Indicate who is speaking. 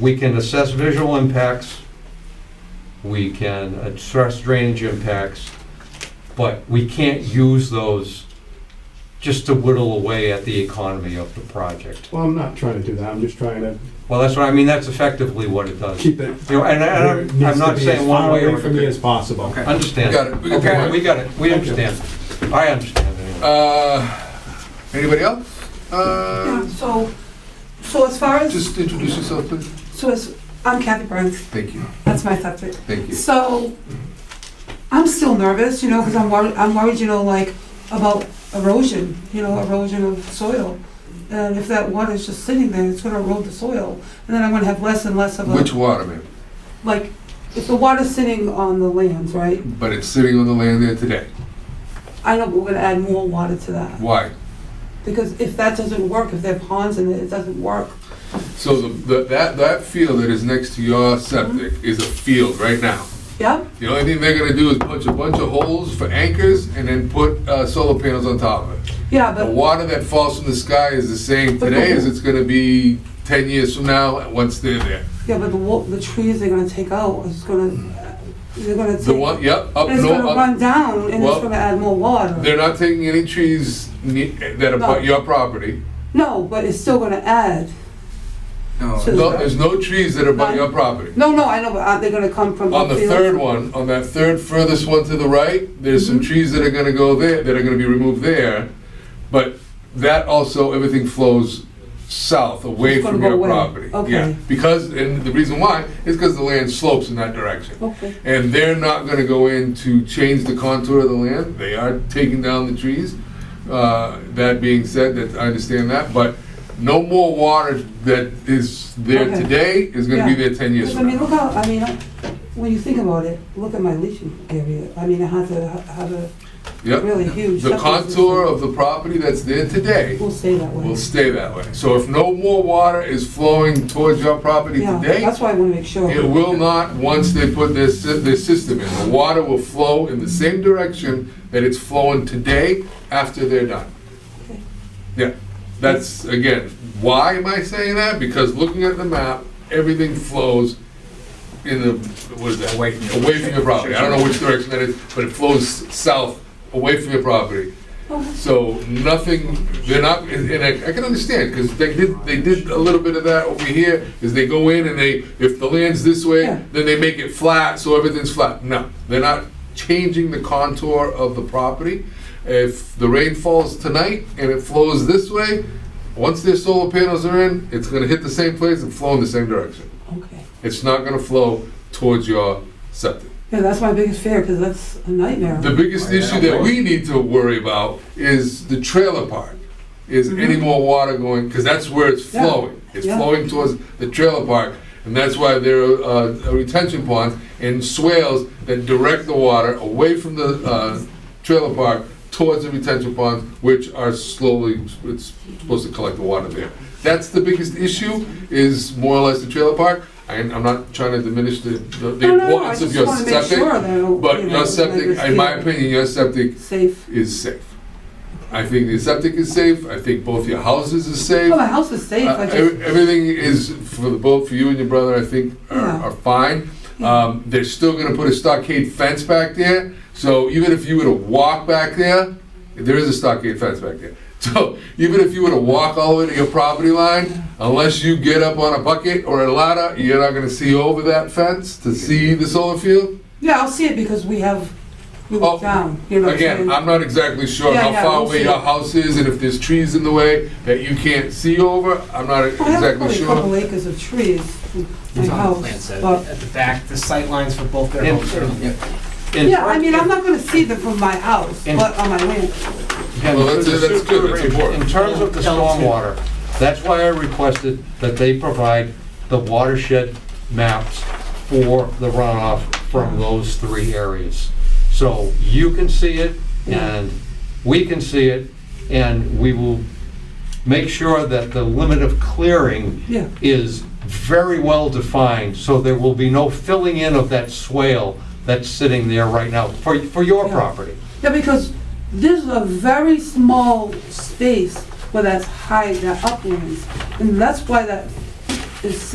Speaker 1: we can assess visual impacts, we can assess drainage impacts, but we can't use those just to whittle away at the economy of the project.
Speaker 2: Well, I'm not trying to do that, I'm just trying to
Speaker 1: Well, that's what, I mean, that's effectively what it does. You
Speaker 2: keep it
Speaker 1: know, and I-
Speaker 2: where
Speaker 1: and
Speaker 2: it
Speaker 1: I'm
Speaker 2: needs to
Speaker 1: not
Speaker 2: be, as
Speaker 1: saying one
Speaker 2: far
Speaker 1: way or
Speaker 2: away from me
Speaker 1: another.
Speaker 2: as possible.
Speaker 3: Okay.
Speaker 1: Understand.
Speaker 3: got it, we got the
Speaker 1: Okay,
Speaker 3: point.
Speaker 1: we got it, we
Speaker 2: Thank you.
Speaker 1: understand. I understand anyway.
Speaker 3: Uh, anybody else?
Speaker 4: Yeah,
Speaker 3: Uh,
Speaker 4: So, so as far as,
Speaker 3: just introduce yourself, please.
Speaker 4: so as, I'm Kathy Burns,
Speaker 3: Thank you,
Speaker 4: that's my subject.
Speaker 3: thank you.
Speaker 4: So, I'm still nervous, you know, because I'm worried, I'm worried, you know, like, about erosion, you know, erosion of soil. And if that water is just sitting there, it's gonna erode the soil, and then I'm gonna have less and less of
Speaker 3: Which
Speaker 4: a,
Speaker 3: water, man?
Speaker 4: like, if the water's sitting on the lands, right?
Speaker 3: But it's sitting on the land there today.
Speaker 4: I know we're gonna add more water to that,
Speaker 3: Why?
Speaker 4: because if that doesn't work, if there are ponds in it, it doesn't work.
Speaker 3: So the, the, that, that field that is next to your septic is a field right now.
Speaker 4: Yeah,
Speaker 3: The only thing they're gonna do is punch a bunch of holes for anchors and then put, uh, solar panels on top of it.
Speaker 4: yeah,
Speaker 3: The
Speaker 4: but
Speaker 3: water that falls from the sky is the same today as it's gonna be ten years from now, once they're there.
Speaker 4: Yeah, but the wa- the trees they're gonna take out, it's gonna, they're gonna take.
Speaker 3: The one, yep, up,
Speaker 4: And it's
Speaker 3: no,
Speaker 4: gonna
Speaker 3: up,
Speaker 4: run down and
Speaker 3: Well,
Speaker 4: it's gonna add more water.
Speaker 3: they're not taking any trees ne- that
Speaker 4: No.
Speaker 3: abut your property.
Speaker 4: No, but it's still gonna add.
Speaker 5: No,
Speaker 4: to the-
Speaker 3: No, there's no trees that are by your property.
Speaker 4: No, no, I know, but aren't they gonna come from?
Speaker 3: On the
Speaker 4: upfield?
Speaker 3: third one, on that third furthest one to the right, there's some
Speaker 4: Mm-hmm.
Speaker 3: trees that are gonna go there, that are gonna be removed there. But that also, everything flows south, away
Speaker 4: It's gonna
Speaker 3: from
Speaker 4: go
Speaker 3: your
Speaker 4: away.
Speaker 3: property. Yeah,
Speaker 4: Okay.
Speaker 3: Because, and the reason why, is because the land slopes in that direction.
Speaker 4: Okay,
Speaker 3: And they're not gonna go in to change the contour of the land, they are taking down the trees. Uh, That being said, that, I understand that, but no more water that is there
Speaker 4: Okay.
Speaker 3: today is gonna be
Speaker 4: Yeah.
Speaker 3: there ten years
Speaker 4: because I
Speaker 3: from
Speaker 4: mean,
Speaker 3: now.
Speaker 4: look how, I mean, I- when you think about it, look at my leaching area, I mean, I had to, have a
Speaker 3: Yep,
Speaker 4: really huge.
Speaker 3: the
Speaker 4: septic
Speaker 3: contour
Speaker 4: system.
Speaker 3: of the property that's there today
Speaker 4: Will stay that way.
Speaker 3: will stay that way. So if no more water is flowing towards your property
Speaker 4: Yeah,
Speaker 3: today,
Speaker 4: that's why I wanna make sure.
Speaker 3: It will not, once they put their, sy- their system in, the water will flow in the same direction that it's flowing today after they're done.
Speaker 4: Okay.
Speaker 3: Yeah, that's, again, why am I saying that? Because looking at the map, everything flows in the, what is that?
Speaker 5: Away from your-
Speaker 3: Away from your property, I don't know which direction that is, but it flows south, away from your property.
Speaker 4: Okay.
Speaker 3: So nothing, they're not, and and I, I can understand, because they did, they did a little bit of that over here, is they go in and they, if the land's this way,
Speaker 4: Yeah.
Speaker 3: then they make it flat, so everything's flat. No, they're not changing the contour of the property. If the rain falls tonight and it flows this way, once their solar panels are in, it's gonna hit the same place and flow in the same direction.
Speaker 4: Okay,
Speaker 3: It's not gonna flow towards your septic.
Speaker 4: yeah, that's my biggest fear, because that's a nightmare.
Speaker 3: The biggest issue that we need to worry about is the trailer park. Is any more water going, because that's where it's
Speaker 4: Mm-hmm. Yeah.
Speaker 3: flowing. It's
Speaker 4: Yeah.
Speaker 3: flowing towards the trailer park. And that's why there are uh, retention ponds and swales that direct the water away from the uh, trailer park towards the retention ponds, which are slowly, it's supposed to collect the water there. That's the biggest issue, is more or less the trailer park. I- I'm not trying to diminish the the- the
Speaker 4: No, no, no, I
Speaker 3: importance of
Speaker 4: just
Speaker 3: your
Speaker 4: wanna make
Speaker 3: septic.
Speaker 4: sure that I don't,
Speaker 3: But
Speaker 4: you
Speaker 3: your
Speaker 4: know,
Speaker 3: septic,
Speaker 4: like
Speaker 3: in my
Speaker 4: it's-
Speaker 3: opinion, your septic
Speaker 4: Safe.
Speaker 3: is safe. I think the septic is safe, I think both your houses are
Speaker 4: Oh,
Speaker 3: safe.
Speaker 4: my house is safe,
Speaker 3: Uh,
Speaker 4: I just,
Speaker 3: ev- Everything is, for the both for you and your brother, I think are
Speaker 4: Yeah.
Speaker 3: are fine.
Speaker 4: Yeah.
Speaker 3: Um, They're still gonna put a stockade fence back there, so even if you were to walk back there, there is a stockade fence back there. So even if you were to walk all the way to your property line, unless you get up on a bucket or a ladder, you're not gonna see over that fence to see the solar field.
Speaker 4: yeah, I'll see it because we have, we
Speaker 3: Oh,
Speaker 4: look down, you know. what I'm
Speaker 3: Again,
Speaker 4: saying?
Speaker 3: I'm not exactly sure
Speaker 4: Yeah,
Speaker 3: how
Speaker 4: yeah,
Speaker 3: far
Speaker 4: we'll
Speaker 3: away
Speaker 4: see.
Speaker 3: your house is and if there's trees in the way that you can't see over. I'm not
Speaker 4: I have
Speaker 3: exactly
Speaker 4: probably a couple
Speaker 3: sure.
Speaker 4: acres of trees in my
Speaker 6: It's on the plan
Speaker 4: house,
Speaker 6: set,
Speaker 4: but,
Speaker 6: at the back, the sight lines for both their
Speaker 1: Yeah.
Speaker 6: homes. are-
Speaker 1: In
Speaker 4: yeah, I
Speaker 1: front-
Speaker 4: mean, I'm not gonna see them from my house,
Speaker 1: In-
Speaker 4: but on my land.
Speaker 1: And
Speaker 3: Well, that's-
Speaker 1: for the
Speaker 3: that's good, that's
Speaker 1: super-
Speaker 3: important.
Speaker 1: In terms of the stormwater, that's why I requested that they provide the watershed maps for the runoff from those three areas. So you can see it, and we can see it, and we will make sure that the limit of clearing
Speaker 4: Yeah.
Speaker 1: is very well defined, so there will be no filling in of that swale that's sitting there right now, for, for your
Speaker 4: Yeah.
Speaker 1: property.
Speaker 4: Yeah, because there's a very small space where that's high, that uplands, and that's why that is